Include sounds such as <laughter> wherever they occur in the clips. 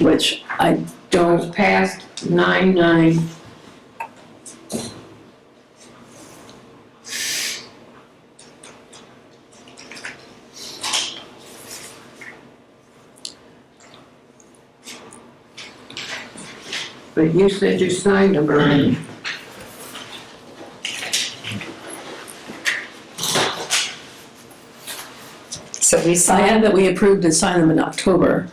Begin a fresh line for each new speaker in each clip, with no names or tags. which I
It
don't
was passed nine nine. But you said you signed them already.
So we
I
signed,
had that we approved and signed them in October.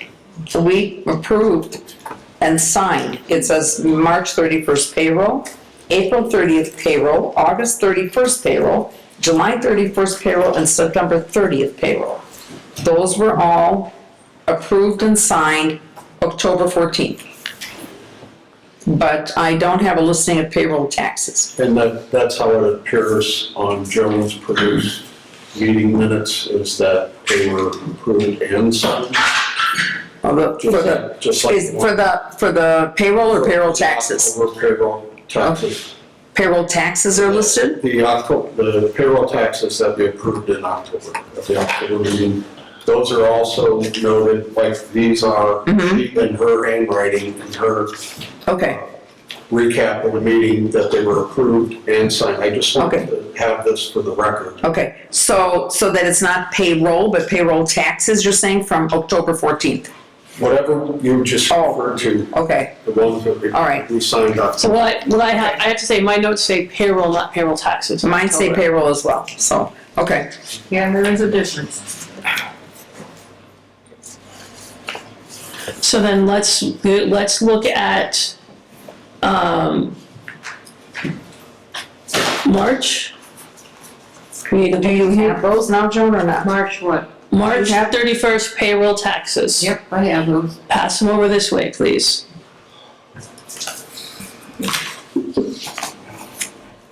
so we approved and signed. It says March thirty-first payroll, April thirtieth payroll, August thirty-first payroll, July thirty-first payroll, and September thirtieth payroll. Those were all approved and signed October fourteenth. But I don't have a listing of payroll taxes.
And that, that's how it appears on Jones produced meeting minutes, is that they were approved and signed,
Although, for the,
just like.
is, for the, for the payroll or payroll taxes?
Over payroll taxes.
Payroll taxes are listed?
The October, the payroll taxes that we approved in October, at the October meeting, those are also noted, like these are
Mhm.
in her handwriting, in her
Okay.
recap of the meeting, that they were approved and signed. I just wanted to have this for the record.
Okay, so, so that it's not payroll, but payroll taxes, you're saying, from October 14th?
Whatever you just
Oh.
referred to,
Okay,
The ones that we.
All right.
We signed up.
So what I, what I have, I have to say, my notes say payroll, not payroll taxes.
mine say payroll as well, so, okay.
Yeah, there is a difference.
So then let's, let's look at, um, March.
Do you have those now, Joan, or not?
March what?
March
You have-
thirty-first payroll taxes.
Yep, I have those.
Pass them over this way, please.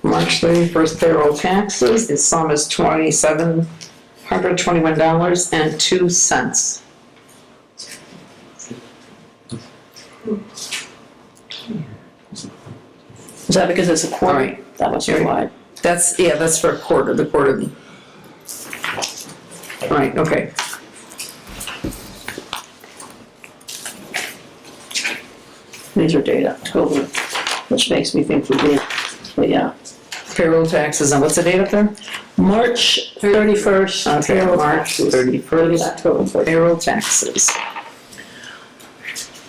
March 31st payroll taxes, the sum is $2,721.02.
Is that because it's a
All
quarter?
right.
That was your why.
That's, yeah, that's for a quarter, the quarterly. Right, okay.
These are data, October, which makes me think we did, but yeah.
Payroll taxes, and what's the date up there?
March thirty-first.
Okay, March 31st payroll taxes.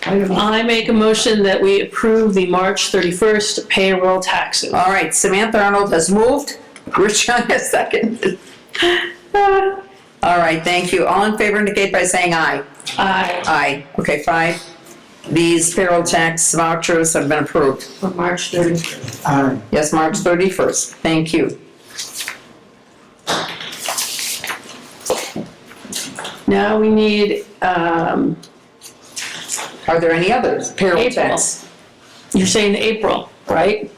I don't-
I make a motion that we approve the March 31st payroll taxes.
All right, Samantha Arnold has moved. <laughs> Richon has seconded. All right, thank you. All in favor indicate by saying aye.
I,
Aye. Okay, five. These payroll tax vouchers have been approved.
For March thirty.
Yes, March 31st. Thank you.
now we need, um,
Are there any others? Payroll
April.
tax.
you're saying April, right?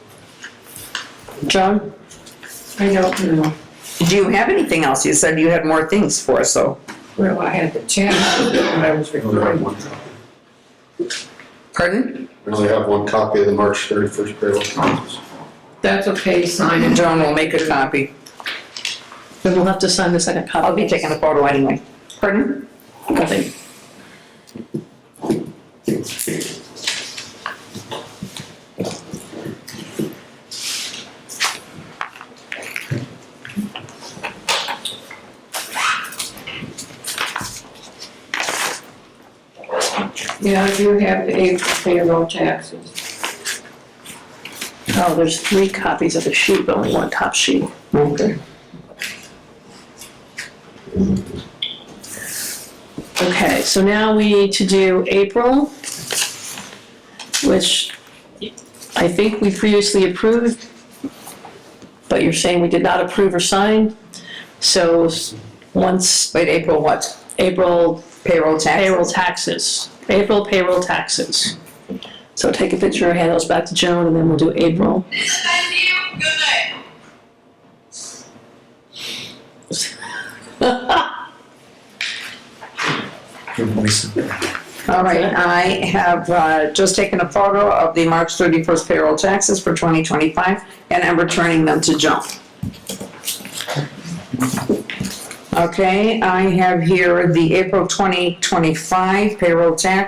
Joan?
I don't know.
Do you have anything else? You said you had more things for us, so.
Well, I had the chat when I was
We only have
recording.
one copy.
Pardon?
We only have one copy of the March thirty-first payroll taxes.
That's okay, sign it.
Joan will make a copy.
Then we'll have to sign the second copy.
I'll be taking a photo anyway. Pardon?
Nothing.
Yeah, I do have the April payroll taxes.
Oh, there's three copies of the sheet, but only one top sheet.
Okay.
Okay, so now we need to do April, which I think we previously approved, but you're saying we did not approve or sign. So s- once
Wait, April what?
April
Payroll taxes?
payroll taxes, April payroll taxes. So take a picture, hand those back to Joan, and then we'll do April.
All right, I have uh, just taken a photo of the March 31st payroll taxes for 2025, and I'm returning them to Joan. Okay, I have here the April 2025 payroll tax